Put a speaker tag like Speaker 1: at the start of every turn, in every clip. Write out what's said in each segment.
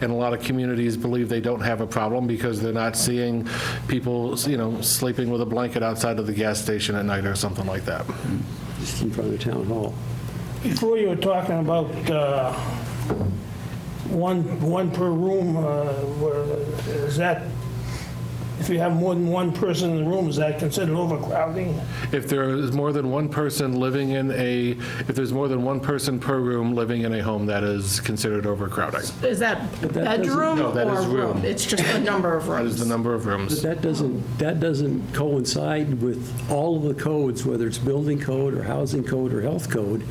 Speaker 1: and a lot of communities believe they don't have a problem because they're not seeing people, you know, sleeping with a blanket outside of the gas station at night or something like that.
Speaker 2: just in front of the town hall.
Speaker 3: Before you were talking about uh, one, one per room, uh, where- is that, if you have more than one person in the room, is that considered overcrowding?
Speaker 1: If there is more than one person living in a, if there's more than one person per room living in a home, that is considered overcrowding.
Speaker 4: Is that bedroom
Speaker 1: No, that
Speaker 4: or
Speaker 1: is room.
Speaker 4: room? It's just the number of
Speaker 1: That is the
Speaker 4: rooms.
Speaker 1: number of
Speaker 2: But
Speaker 1: rooms.
Speaker 2: that doesn't, that doesn't coincide with all of the codes, whether it's building code or housing code or health code,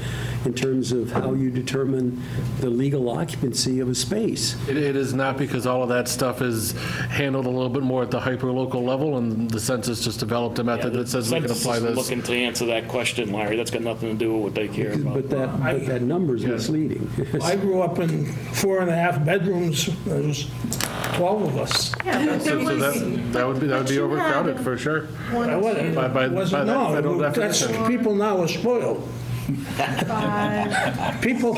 Speaker 2: in terms of how you determine the legal occupancy of a space.
Speaker 1: It it is not because all of that stuff is handled a little bit more at the hyper-local level, and the census just developed a method that says we can
Speaker 5: Census
Speaker 1: apply
Speaker 5: is
Speaker 1: this.
Speaker 5: Looking to answer that question, Larry, that's got nothing to do with what they care about.
Speaker 2: But that, but that number's misleading.
Speaker 3: I grew up in four and a half bedrooms, there was 12 of us.
Speaker 4: Yeah, but there
Speaker 1: So so
Speaker 4: was-
Speaker 1: that that would be, that would
Speaker 4: but
Speaker 1: be
Speaker 4: you had-
Speaker 1: overcrowded, for sure.
Speaker 3: I wasn't,
Speaker 1: By- by- by
Speaker 3: wasn't,
Speaker 1: that federal
Speaker 3: no, that's,
Speaker 1: definition.
Speaker 3: people now are spoiled. People,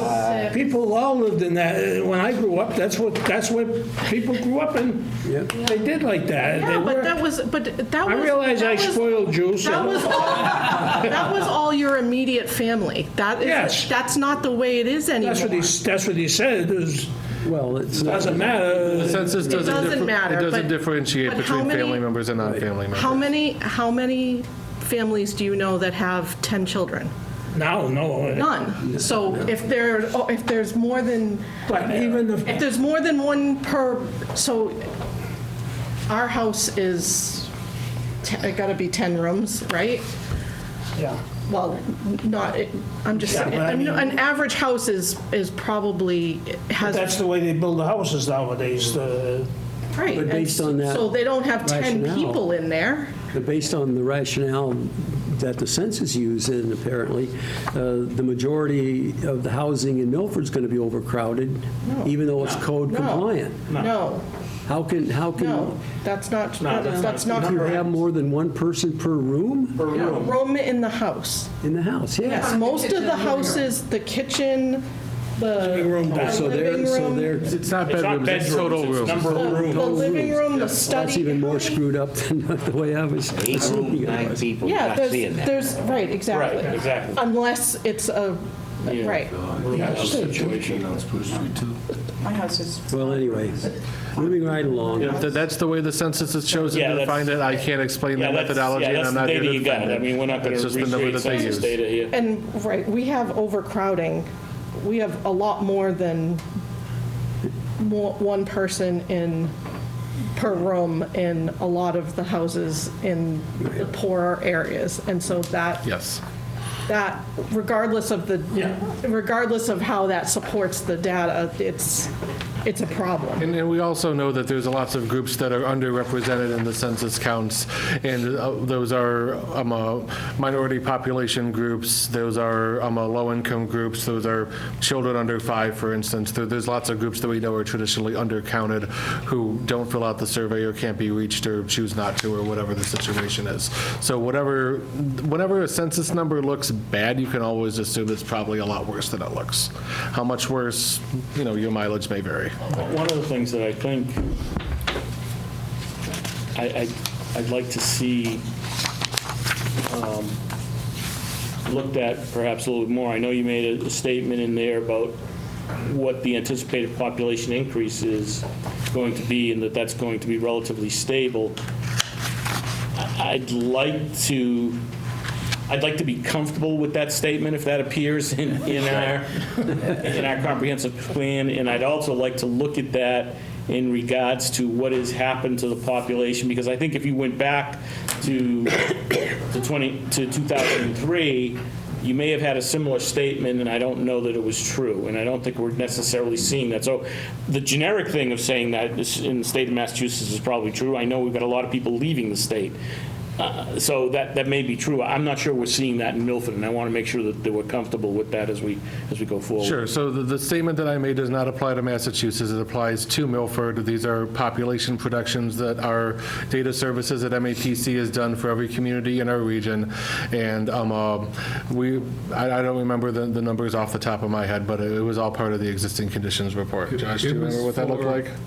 Speaker 3: people all lived in that, uh, when I grew up, that's what, that's what people grew up in.
Speaker 2: Yeah.
Speaker 3: They did like that. They
Speaker 4: Yeah, but
Speaker 3: worked.
Speaker 4: that was, but that
Speaker 3: I
Speaker 4: was.
Speaker 3: realize I
Speaker 4: that was-
Speaker 3: spoiled you,
Speaker 4: That
Speaker 3: so
Speaker 4: was all, that was all your immediate family. That
Speaker 3: Yes.
Speaker 4: is, that's not the way it is anymore.
Speaker 3: that's what he, that's what he said, is,
Speaker 2: Well, it's not,
Speaker 3: doesn't matter.
Speaker 1: The census doesn't.
Speaker 4: doesn't
Speaker 1: differ-
Speaker 4: matter,
Speaker 1: It doesn't
Speaker 4: but-
Speaker 1: differentiate
Speaker 4: but how
Speaker 1: between
Speaker 4: many-
Speaker 1: family members and non-family members.
Speaker 4: How many, how many families do you know that have 10 children?
Speaker 3: No, no.
Speaker 4: None. So if there, oh, if there's more than,
Speaker 3: But even
Speaker 4: if
Speaker 3: if,
Speaker 4: there's more than one per, so our house is, te- it gotta be 10 rooms, right?
Speaker 3: yeah,
Speaker 4: Well, not, it- I'm just,
Speaker 3: Yeah, but I
Speaker 4: I mean,
Speaker 3: mean-
Speaker 4: an average house is, is probably,
Speaker 3: that's
Speaker 4: has,
Speaker 3: the way they build the houses nowadays, the,
Speaker 4: right.
Speaker 2: But
Speaker 4: and
Speaker 2: based on that
Speaker 4: So they don't have 10
Speaker 2: rationale-
Speaker 4: people in there.
Speaker 2: but based on the rationale that the census used, and apparently, uh, the majority of the housing in Milford's going to be overcrowded, even though it's code
Speaker 4: No.
Speaker 2: compliant.
Speaker 4: No,
Speaker 2: How can, how can?
Speaker 4: no,
Speaker 2: Mm-hmm.
Speaker 4: that's not, that's not
Speaker 2: If you have
Speaker 4: correct.
Speaker 2: more than one person per room
Speaker 4: No, Room in the house.
Speaker 2: in the house, yes.
Speaker 4: Yes, most of the houses, the kitchen, the
Speaker 3: room
Speaker 4: the
Speaker 3: back.
Speaker 2: Oh, So
Speaker 4: living
Speaker 2: they're, so
Speaker 4: room,
Speaker 2: they're,
Speaker 1: It's not
Speaker 5: It's not
Speaker 1: bedrooms, it's total
Speaker 5: bedrooms,
Speaker 1: rooms.
Speaker 5: it's number
Speaker 4: the-
Speaker 5: of rooms.
Speaker 4: The living room, the study.
Speaker 2: that's even
Speaker 4: how
Speaker 2: more
Speaker 4: many-
Speaker 2: screwed up than the way I was
Speaker 6: Eight
Speaker 2: assuming
Speaker 6: rooms,
Speaker 2: it
Speaker 6: nine
Speaker 2: was.
Speaker 6: people,
Speaker 4: Yeah,
Speaker 6: not
Speaker 4: there's,
Speaker 6: seeing that.
Speaker 4: there's, right, exactly.
Speaker 5: Right, exactly.
Speaker 4: Unless it's a, right.
Speaker 7: My house is.
Speaker 2: Well, anyway, moving right along.
Speaker 1: If th- That's the way the census has chosen
Speaker 5: Yeah,
Speaker 1: to
Speaker 5: that's-
Speaker 1: define it. I can't explain
Speaker 5: Yeah,
Speaker 1: the
Speaker 5: that's-
Speaker 1: methodology,
Speaker 5: yeah,
Speaker 1: and
Speaker 5: that's
Speaker 1: I'm
Speaker 5: the
Speaker 1: not here
Speaker 5: data
Speaker 1: to
Speaker 5: you got.
Speaker 1: defend
Speaker 5: I
Speaker 1: it.
Speaker 5: mean, we're not going
Speaker 1: That's
Speaker 5: to
Speaker 1: just the number
Speaker 5: recreate
Speaker 1: that they
Speaker 5: census
Speaker 1: use.
Speaker 5: data here.
Speaker 4: And, right, we have overcrowding. We have a lot more than more, one person in, per room in a lot of the houses in the poorer areas. And so that,
Speaker 1: Yes.
Speaker 4: that, regardless of the, regardless of how that supports the data, it's, it's a problem.
Speaker 1: And, and we also know that there's lots of groups that are underrepresented in the census counts, and uh, those are um, uh, minority population groups, those are um, uh, low-income groups, those are children under five, for instance. There- There's lots of groups that we know are traditionally undercounted who don't fill out the survey or can't be reached or choose not to, or whatever the situation is. So whatever, whenever a census number looks bad, you can always assume it's probably a lot worse than it looks. How much worse, you know, your mileage may vary.
Speaker 5: One of the things that I think I, I- I'd like to see um, looked at perhaps a little bit more. I know you made a statement in there about what the anticipated population increase is going to be and that that's going to be relatively stable. I- I'd like to, I'd like to be comfortable with that statement if that appears in, in our, in our comprehensive plan, and I'd also like to look at that in regards to what has happened to the population, because I think if you went back to, to 20, to 2003, you may have had a similar statement, and I don't know that it was true, and I don't think we're necessarily seeing that. So the generic thing of saying that is in the state of Massachusetts is probably true. I know we've got a lot of people leaving the state Uh, So that, that may be true. I'm not sure we're seeing that in Milford, and I want to make sure that that we're comfortable with that as we, as we go forward.
Speaker 1: Sure, so the, the statement that I made does not apply to Massachusetts, it applies to Milford. These are population productions that our data services at MAPC has done for every community in our region. And um, uh, we, I, I don't remember the, the numbers off the top of my head, but it was all part of the existing conditions report. Josh, do you remember what that looked like?